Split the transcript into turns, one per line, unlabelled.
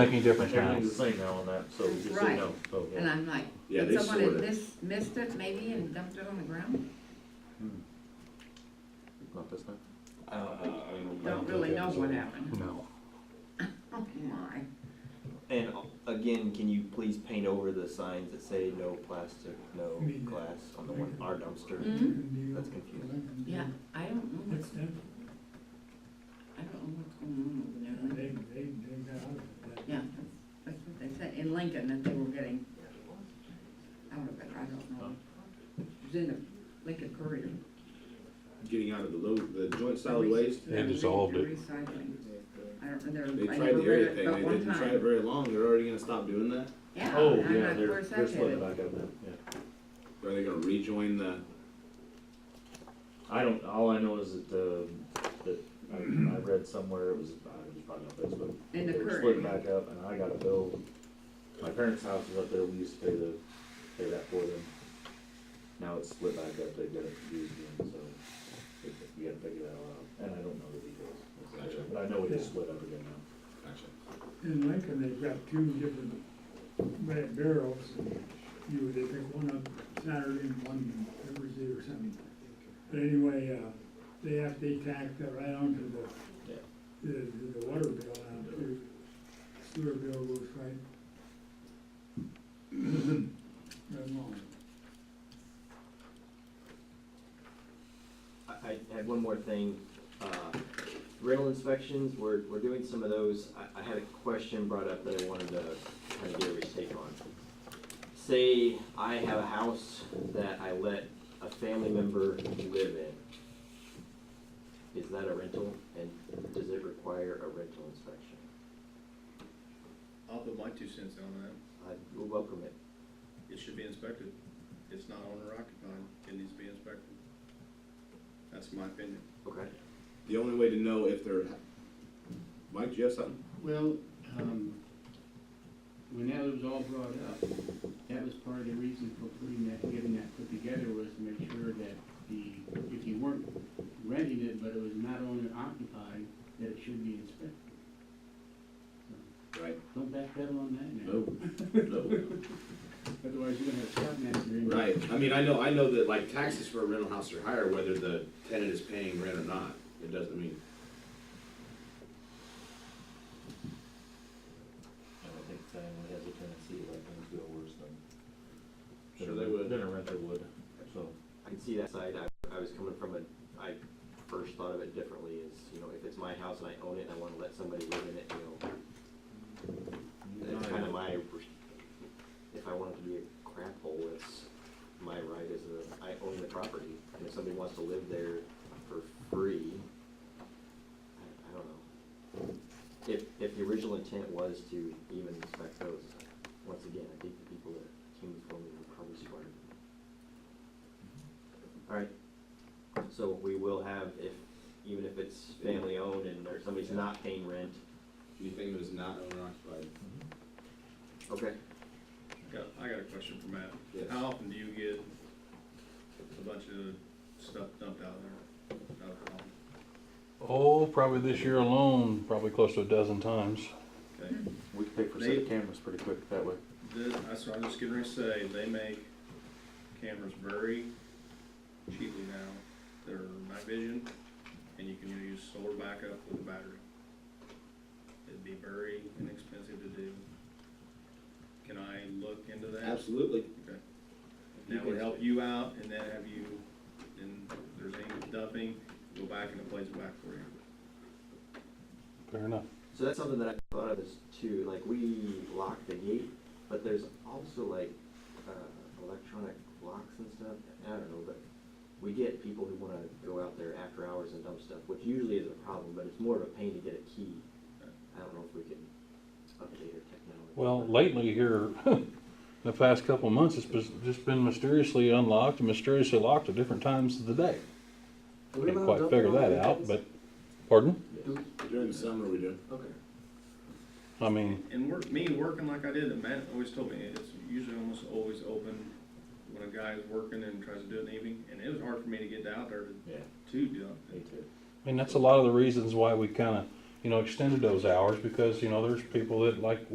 Make any difference now.
Everything's the same now on that, so just so you
Right.
know, so, yeah.
And I'm like,
Yeah,
did
they
someone
sorted.
had mis- missed it maybe and dumped it on the ground?
Not this time.
I don't know. I mean,
Don't really know what happened.
No.
Oh my,
And again, can you please paint over the signs that say no plastic, no glass on the one, our dumpster? That's confusing.
Mm-hmm. yeah, I don't know
That's
what's,
them,
I don't know what's going on over
they,
there.
they, they got out of that.
Yeah, that's, that's what they said, in Lincoln, that they were getting, I don't know, I don't know. It was in the Lincoln Courier.
Getting out of the low, the joint solid waste.
They dissolved it.
Recycling, I don't, know.
They
there, I
tried
never
the
read
area
it
thing. They
but one
didn't try it
time.
very long. They're already gonna stop doing that.
Yeah,
Oh,
I'm
yeah,
not,
they're,
where's
they're
that
splitting
headed?
back up now, yeah.
Are they gonna rejoin the?
I don't, all I know is that, uh, that I, I read somewhere, it was, it was probably on Facebook.
In the
They were
current.
Splitting back up and I got a bill, my parents' house was up there, we used to pay the, pay that for them. Now it's split back up, they've got it confused again, so it- you gotta figure that all out, and I don't know the details.
Gotcha.
But I know it is split up again now.
Gotcha.
In Lincoln, they've got two different red barrels, you would pick one up Saturday and one Thursday or something. But anyway, uh, they have, they tacked that right onto
Yeah.
the, the, the water bill out there. Sewer bill goes right. Right along.
I, I had one more thing. Uh, Rental inspections, we're, we're doing some of those. I, I had a question brought up that I wanted to kind of get everybody's take on. Say I have a house that I let a family member live in. Is that a rental and does it require a rental inspection?
I'll put my two cents in on that.
I will welcome it.
It should be inspected. It's not owner occupied. It needs to be inspected. That's my opinion.
Okay.
The only way to know if they're. Mike, do you have something?
Well, um, when that was all brought up, that was part of the reason for putting that, getting that put together was to make sure that the, if you weren't renting it, but it was not owner occupied, that it should be inspected.
Right.
Don't backpedal on that now.
No. No.
Otherwise, you're gonna have a shot master in.
Right. I mean, I know, I know that like taxes for a rental house are higher whether the tenant is paying rent or not. It doesn't mean.
And I think family has a tendency to let things go worse than.
Sure they would.
Than a renter would, so.
I can see that side. I, I was coming from a, I first thought of it differently is, you know, if it's my house and I own it and I wanna let somebody live in it, you know,
Oh,
that's kinda my, pers- if I want it to be a crap hole, it's my right as a, I own the property. And if somebody wants to live there for free, I, I don't know. If, if the original intent was to even inspect those, once again, I think the people that came before me were probably smarter than me. All right, so we will have, if, even if it's family owned and or somebody's not paying rent,
Anything that is not owner occupied.
okay,
Got, I got a question for Matt.
Yes.
How often do you get a bunch of stuff dumped out there? Out of town?
Oh, probably this year alone, probably close to a dozen times.
Okay.
We can pick for set of cameras pretty quick that way.
Th- That's what I was just getting ready to say. They make cameras very cheaply now. They're night vision and you can use solar backup with a battery. It'd be very inexpensive to do. Can I look into that?
Absolutely.
That would help you out, and then have you, and if there's any dumping, go back and it plays it back for you.
Fair enough.
so that's something that I thought of is too, like, we lock the gate, but there's also like, uh, electronic locks and stuff, I don't know, but we get people who wanna go out there after hours and dump stuff, which usually is a problem, but it's more of a pain to get a key. I don't know if we can update our technology.
Well, lately here, the past couple of months, it's bes- just been mysteriously unlocked and mysteriously locked at different times of the day. Didn't quite figure that out, but, pardon?
During the summer we do.
Okay.
I mean,
And work, me working like I did, and Matt always told me, it's usually almost always open when a guy is working and tries to do it in the evening, and it was hard for me to get out there to,
Yeah,
to dump.
me too.
I mean, that's a lot of the reasons why we kinda, you know, extended those hours, because, you know, there's people that like